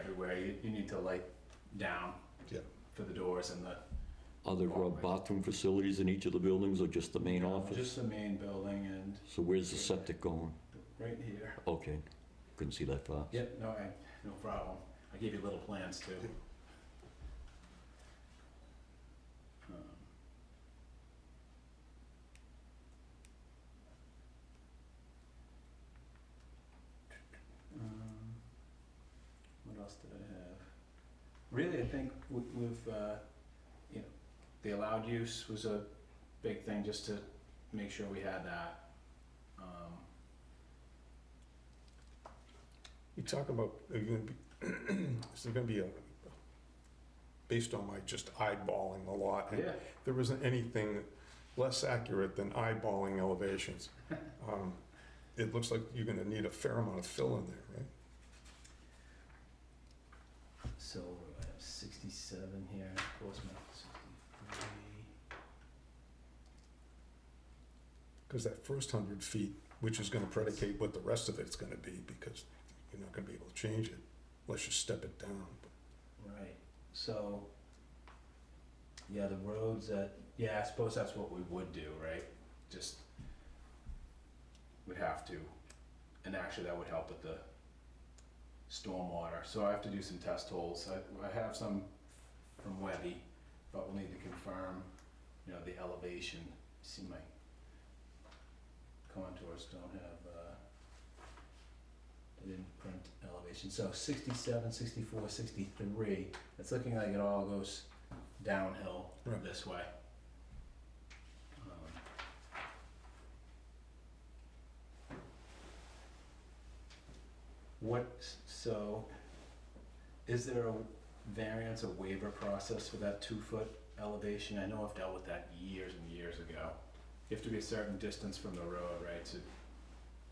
everywhere, you, you need to light down Yeah. for the doors and the. Are there uh, bathroom facilities in each of the buildings or just the main office? Just the main building and So where's the septic going? right here. Okay, couldn't see that far. Yep, no, I, no problem. I gave you little plans too. Um, um, What else did I have? Really, I think we- we've, uh, you know, the allowed use was a big thing just to make sure we had that. Um, You talk about, are you gonna be, is there gonna be a, based on my just eyeballing the lot? and Yeah, There isn't anything less accurate than eyeballing elevations. Um, It looks like you're gonna need a fair amount of fill in there, right? So I have sixty-seven here, Portsmouth sixty-three. Because that first hundred feet, which is gonna predicate what the rest of it's gonna be, because you're not gonna be able to change it unless you step it down. Right, so, yeah, the roads that, yeah, I suppose that's what we would do, right? Just, would have to, and actually that would help with the stormwater. So I have to do some test holes. I, I have some from Webby, but we'll need to confirm, you know, the elevation. See my contours don't have, uh, they didn't print elevation. So 67, 64, 63, it's looking like it all goes downhill Right. this way. Um, What, so, is there a variance or waiver process for that two-foot elevation? I know I've dealt with that years and years ago. You have to be a certain distance from the road, right, to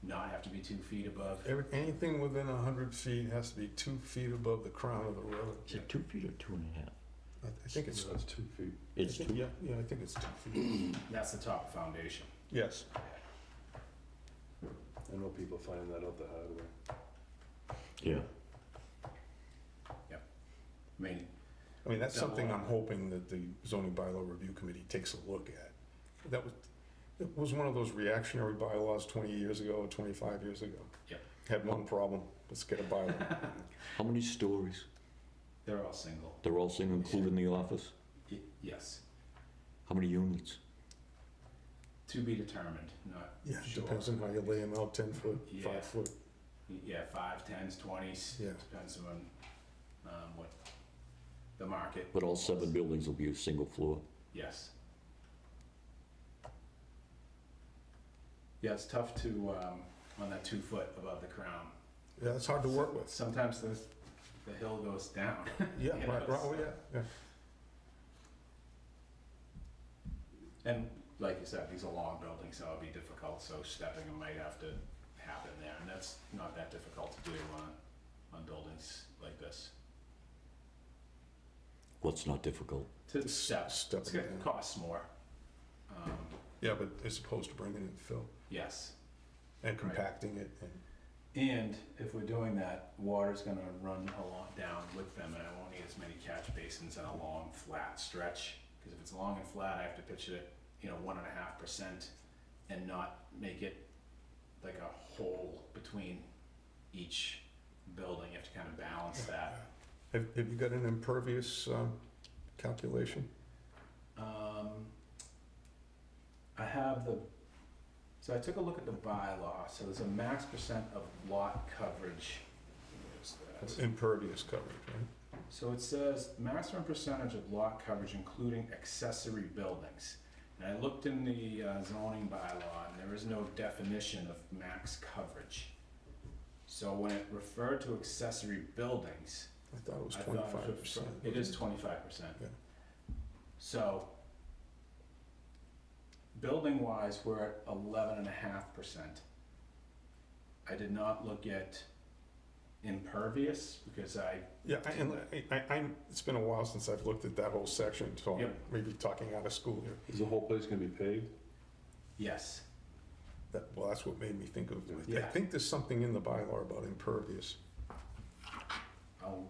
not have to be two feet above? Every- Anything within a hundred feet has to be two feet above the crown of the road. Is it two feet or two and a half? I I think it's. two feet. It's two, Yeah, yeah, I think it's two feet. That's the top foundation. Yes. I know people finding that out the hard way. yeah. I mean, I mean, that's Double something I'm up. hoping that the zoning bylaw review committee takes a look at. That was, it was one of those reactionary bylaws twenty years ago, twenty-five years ago. Yep. Had one problem, let's get a bylaw. How many stories? they're all single. They're all single, including the office? Y- Yes, How many units? to be determined, not, Yeah, Sure. depends on how you lay them out, ten foot, Yeah. five foot, yeah, five, tens, twenties, yeah. depends on, um, what the market. But all seven wants. buildings will be a single floor. Yes. Yeah, it's tough to, um, on that two foot above the crown. Yeah, that's hard to work with. Sometimes the, the hill goes down. Yeah, Yeah, right, right, oh, yeah, it's- yeah. And like you said, these are long buildings, so it'll be difficult, so stepping might have to happen there, and that's not that difficult to do on, on buildings like this. What's not difficult? To Just step, step it's gonna it down. cost more. Um, Yeah, but as opposed to bringing in fill Yes, and Right. compacting it and. and if we're doing that, water's gonna run along down with them, and I won't need as many catch basins in a long, flat stretch. Cause if it's long and flat, I have to pitch it, at, you know, one and a half percent and not make it like a hole between each building. You have to kind of balance that. Have, have you got an impervious um, calculation? Um, I have the, so I took a look at the bylaw, so there's a max percent of lot coverage. Where's that? Impervious coverage, right? So it says maximum percentage of lot coverage including accessory buildings. And I looked in the uh, zoning bylaw and there is no definition of max coverage. So when it referred to accessory buildings, I thought it was I thought it twenty-five was- percent. It is twenty-five percent. Yeah. So, building-wise, we're at eleven and a half percent. I did not look at impervious, because I, Yeah, I- and I, I, I'm, it's been a while since I've looked at that whole section, so I'm Yep. maybe talking out of school here. Is the whole place gonna be paved? yes, That, well, that's what made me think of, I Yeah. think there's something in the bylaw about impervious. I'll